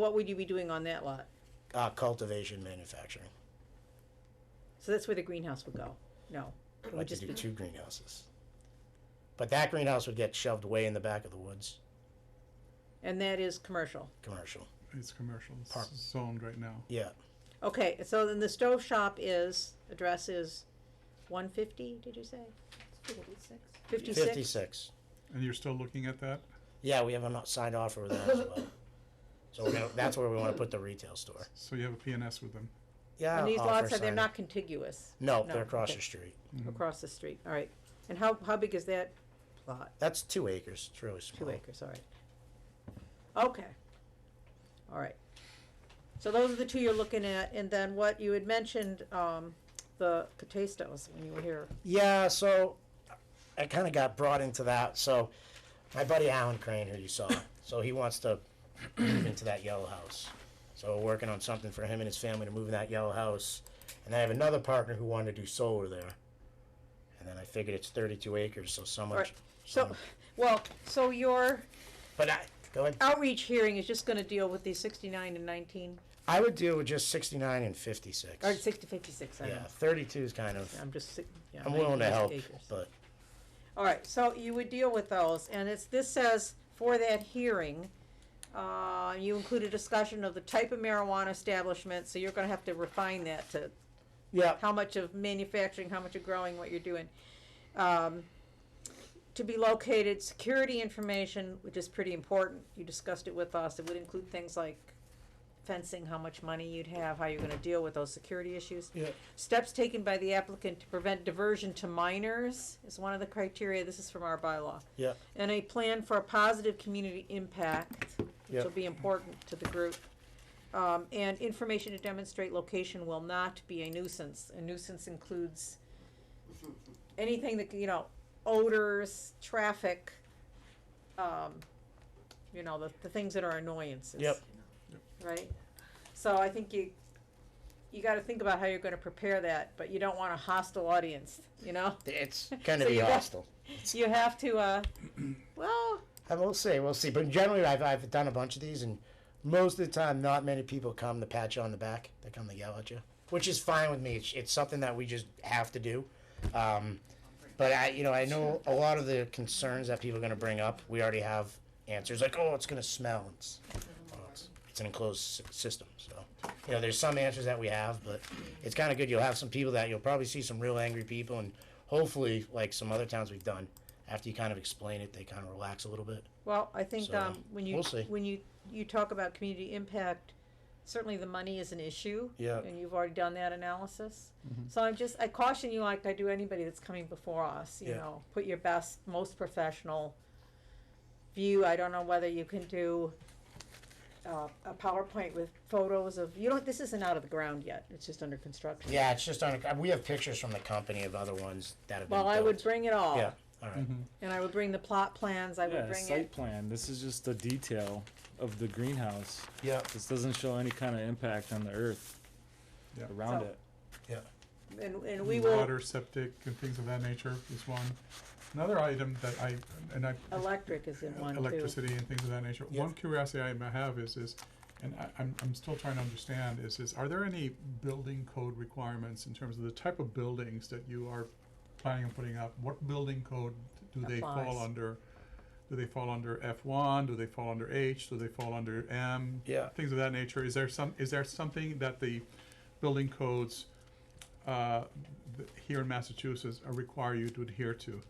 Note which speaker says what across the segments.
Speaker 1: What would you be doing on that lot?
Speaker 2: Uh, cultivation, manufacturing.
Speaker 1: So that's where the greenhouse would go? No. It
Speaker 2: I'd
Speaker 1: would
Speaker 2: like to
Speaker 1: just
Speaker 2: do
Speaker 1: be,
Speaker 2: two greenhouses. But that greenhouse would get shoved way in the back of the woods,
Speaker 1: and that is commercial.
Speaker 2: commercial.
Speaker 3: It's commercial, it's
Speaker 2: Park.
Speaker 3: zoned right now.
Speaker 2: Yeah,
Speaker 1: Okay, so then the stove shop is, address is one fifty, did you say? Fifty-six?
Speaker 2: fifty-six.
Speaker 3: And you're still looking at that?
Speaker 2: Yeah, we have a not signed offer with them as well. So we're gonna- that's where we wanna put the retail store.
Speaker 3: So you have a PNS with them?
Speaker 2: Yeah.
Speaker 1: And these
Speaker 2: offer
Speaker 1: lots, are they're
Speaker 2: signed.
Speaker 1: not contiguous?
Speaker 2: No,
Speaker 1: no,
Speaker 2: they're across
Speaker 1: okay.
Speaker 2: the street.
Speaker 1: Across the street, all right. And how, how big is that plot?
Speaker 2: That's two acres, it's really small.
Speaker 1: Two acres, all right. Okay, all right. So those are the two you're looking at, and then what you had mentioned, um, the Catastos when you were here.
Speaker 2: Yeah, so I kind of got brought into that. So my buddy Alan Crane, who you saw, so he wants to move into that yellow house. So we're working on something for him and his family to move in that yellow house. And I have another partner who wanted to do solar there. And then I figured it's 32 acres, so so much.
Speaker 1: Right.
Speaker 2: Oh.
Speaker 1: So, well, so your
Speaker 2: but I go ahead.
Speaker 1: outreach hearing is just gonna deal with these sixty-nine and nineteen
Speaker 2: I would do just 69 and 56.
Speaker 1: Or six to fifty-six, I don't
Speaker 2: yeah,
Speaker 1: know.
Speaker 2: 32 is kind of.
Speaker 1: I'm just, si- yeah.
Speaker 2: I'm willing to
Speaker 1: 90
Speaker 2: help,
Speaker 1: acres.
Speaker 2: but
Speaker 1: All right, so you would deal with those, and it's, this says, for that hearing, uh, you include a discussion of the type of marijuana establishment, so you're gonna have to refine that to
Speaker 2: yeah,
Speaker 1: how much of manufacturing, how much of growing, what you're doing. Um, to be located, security information, which is pretty important, you discussed it with us, it would include things like fencing, how much money you'd have, how you're gonna deal with those security issues.
Speaker 2: Yeah.
Speaker 1: Steps taken by the applicant to prevent diversion to minors is one of the criteria, this is from our bylaw.
Speaker 2: yeah,
Speaker 1: And a plan for a positive community impact, which
Speaker 2: Yeah.
Speaker 1: will be important to the group. Um, and information to demonstrate location will not be a nuisance. A nuisance includes anything that, you know, odors, traffic, um, you know, the, the things that are annoyances.
Speaker 2: Yep.
Speaker 1: Right? So I think you, you gotta think about how you're gonna prepare that, but you don't want a hostile audience, you know?
Speaker 2: it's kind
Speaker 1: So
Speaker 2: of
Speaker 1: you
Speaker 2: be
Speaker 1: got-
Speaker 2: hostile.
Speaker 1: You have to, uh, well,
Speaker 2: I will say, we'll see. But generally, I've, I've done a bunch of these, and most of the time, not many people come to pat you on the back. They come to yell at you, which is fine with me. It's, it's something that we just have to do. Um, but I, you know, I know a lot of the concerns that people are going to bring up. We already have answers like, "Oh, it's going to smell." It's, well, it's, it's an enclosed s- system, so you know, there's some answers that we have, but it's kind of good. You'll have some people that you'll probably see some real angry people, and hopefully, like some other towns we've done, after you kind of explain it, they kind of relax a little bit.
Speaker 1: Well, I think,
Speaker 2: So,
Speaker 1: um, when you,
Speaker 2: we'll see.
Speaker 1: when you, you talk about community impact, certainly the money is an issue.
Speaker 2: Yeah.
Speaker 1: And you've already done that analysis.
Speaker 2: Mm-hmm.
Speaker 1: So I'm just, I caution you like I do anybody that's coming before us, you
Speaker 2: Yeah.
Speaker 1: know, put your best, most professional view. I don't know whether you can do, uh, a PowerPoint with photos of, you don't, this isn't out of the ground yet, it's just under construction.
Speaker 2: Yeah, it's just on. We have pictures from the company of other ones that have been.
Speaker 1: Well, I would
Speaker 2: built.
Speaker 1: bring it all.
Speaker 2: Yeah. All right.
Speaker 3: Mm-hmm.
Speaker 1: And I would bring the plot plans, I would
Speaker 4: Yeah,
Speaker 1: bring
Speaker 4: site
Speaker 1: it,
Speaker 4: plan, this is just the detail of the greenhouse.
Speaker 2: Yeah.
Speaker 4: This doesn't show any kind of impact on the earth
Speaker 3: Yeah.
Speaker 4: around
Speaker 1: So-
Speaker 4: it.
Speaker 2: Yeah.
Speaker 1: and, and we will.
Speaker 3: Water, septic, and things of that nature is one. Another item that I, and I,
Speaker 1: Electric is in one too.
Speaker 3: electricity and things of that nature.
Speaker 2: Yeah.
Speaker 3: One curiosity I might have is, is, and I, I'm, I'm still trying to understand, is, is are there any building code requirements in terms of the type of buildings that you are planning on putting up? What building code do they fall
Speaker 1: Applies.
Speaker 3: under? Do they fall under F one? Do they fall under H? Do they fall under M?
Speaker 2: Yeah.
Speaker 3: Things of that nature. Is there some, is there something that the building codes, uh, th- here in Massachusetts uh, require you to adhere to?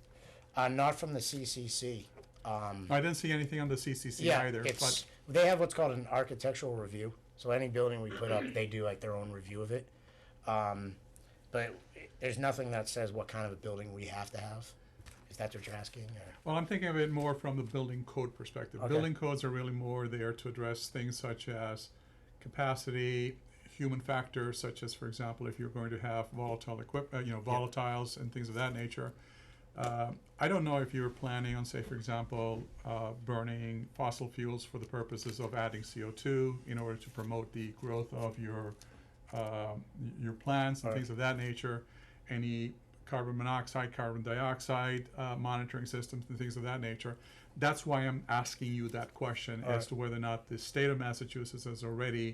Speaker 2: Uh, not from the CCC. Um,
Speaker 3: I didn't see anything on the CCC
Speaker 2: yeah,
Speaker 3: either, but.
Speaker 2: it's they have what's called an architectural review. So any building we put up, they do like their own review of it. Um, but there's nothing that says what kind of a building we have to have. If that's what you're asking, or,
Speaker 3: Well, I'm thinking of it more from the building code perspective.
Speaker 2: Okay.
Speaker 3: Building codes are really more there to address things such as capacity, human factors, such as, for example, if you're going to have volatile equip, uh, you know, volatiles and things of that nature. Uh, I don't know if you're planning on, say, for example, uh, burning fossil fuels for the purposes of adding CO2 in order to promote the growth of your um, y- your plants and
Speaker 2: Right.
Speaker 3: things of that nature, any carbon monoxide, carbon dioxide uh, monitoring systems and things of that nature. that's why I'm asking you that question as
Speaker 2: Alright.
Speaker 3: to whether or not the state of Massachusetts has already